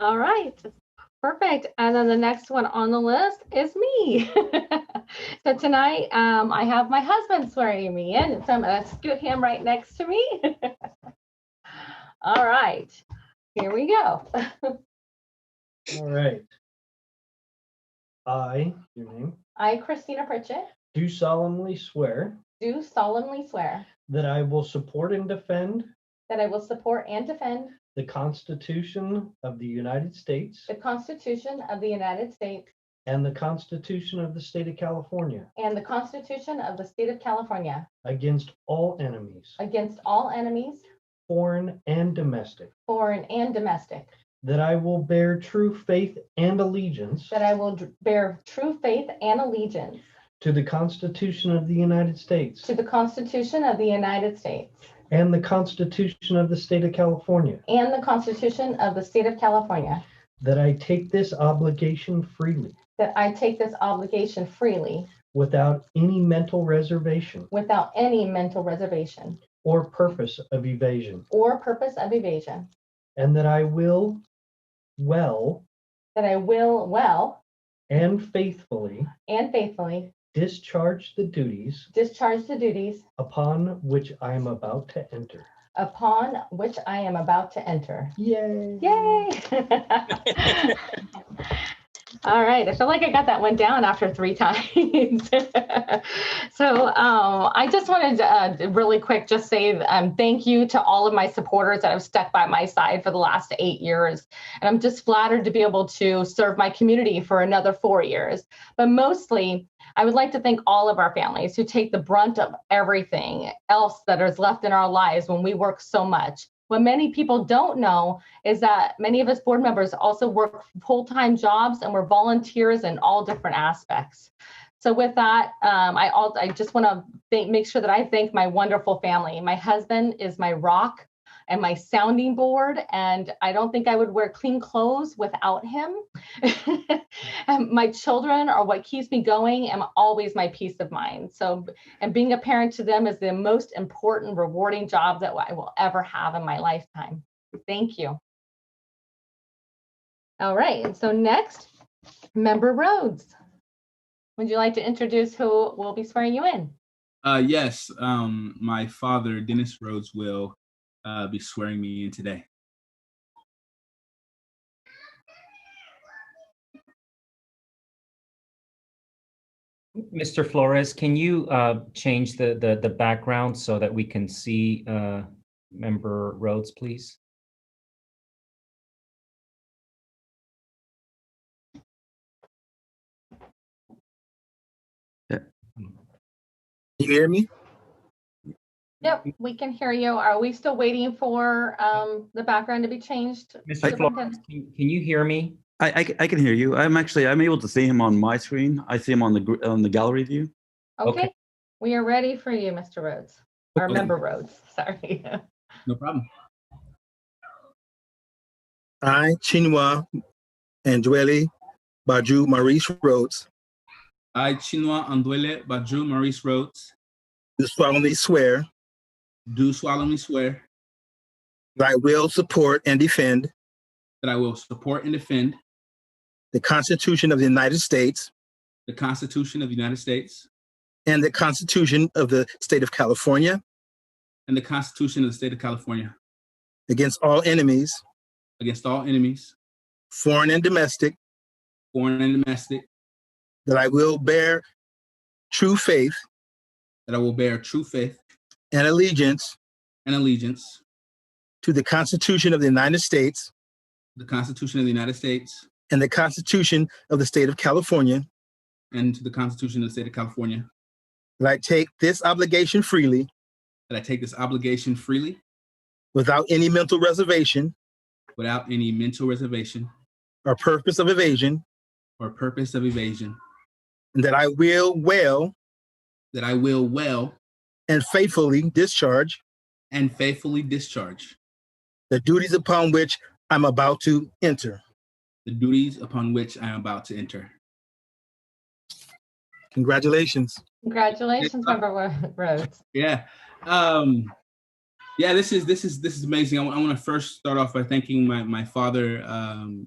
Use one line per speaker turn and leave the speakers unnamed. All right. Perfect. And then the next one on the list is me. so tonight, um, I have my husband swearing me in. So I'm going to scoot him right next to me. All right. Here we go.
All right. I, your name,
I, Christina Pritchett,
do solemnly swear
do solemnly swear
that I will support and defend
that I will support and defend
the Constitution of the United States
the Constitution of the United States
and the Constitution of the State of California
and the Constitution of the State of California
against all enemies,
against all enemies,
foreign and domestic,
foreign and domestic,
that I will bear true faith and allegiance
that I will dr- bear true faith and allegiance
to the Constitution of the United States
to the Constitution of the United States
and the Constitution of the State of California,
and the Constitution of the State of California,
that I take this obligation freely
that I take this obligation freely
without any mental reservation
without any mental reservation
or purpose of evasion,
or purpose of evasion,
and that I will well
that I will well
and faithfully
and faithfully
discharge the duties
discharge the duties
upon which I am about to enter.
upon which I am about to enter.
Yay!
Yay! All right, I feel like I got that one down after three times. so um, I just wanted to uh, really quick just say um, thank you to all of my supporters that have stuck by my side for the last eight years. And I'm just flattered to be able to serve my community for another four years. But mostly, I would like to thank all of our families who take the brunt of everything else that is left in our lives when we work so much. What many people don't know is that many of us board members also work full time jobs and we're volunteers in all different aspects. So, with that, um, I, all, I just want to thank, make sure that I thank my wonderful family. My husband is my rock and my sounding board, and I don't think I would wear clean clothes without him. And my children are what keeps me going and always my peace of mind. So, and being a parent to them is the most important, rewarding job that I will ever have in my lifetime. Thank you. All right. And so, next, Member Rhodes. Would you like to introduce who will be swearing you in?
Uh, yes, um, my father, Dennis Rhodes, will uh, be swearing me in today.
Mr. Flores, can you uh, change the, the, the background so that we can see uh, Member Rhodes, please?
You hear me?
Yep, we can hear you. Are we still waiting for um, the background to be changed?
Mr. Flores,
Superintendent?
can can you hear me?
I, I, ca- I can hear you. I'm actually I'm able to see him on my screen. I see him on the gr- on the gallery view.
Okay.
Okay, we are ready for you, Mr. Rhodes, or
Okay.
Member Rhodes, sorry.
No problem.
I, Chinua Andwele Baju Maurice Rhodes,
I, Chinua Anduele Baju Maurice Rhodes,
do solemnly swear
do solemnly swear
that I will support and defend
that I will support and defend
the Constitution of the United States
the Constitution of the United States
and the Constitution of the State of California
and the Constitution of the State of California
against all enemies,
against all enemies,
foreign and domestic,
foreign and domestic,
that I will bear true faith
that I will bear true faith
and allegiance
and allegiance
to the Constitution of the United States
to the Constitution of the United States
and the Constitution of the State of California,
and to the Constitution of the State of California,
that I take this obligation freely
that I take this obligation freely
without any mental reservation
without any mental reservation
or purpose of evasion,
or purpose of evasion,
and that I will well
that I will well
and faithfully discharge
and faithfully discharge
the duties upon which I'm about to enter.
the duties upon which I am about to enter.
Congratulations.
Congratulations, Member Wo- Rhodes.
Yeah. Um, yeah this is this is this is amazing i want to first start off by thanking my my father um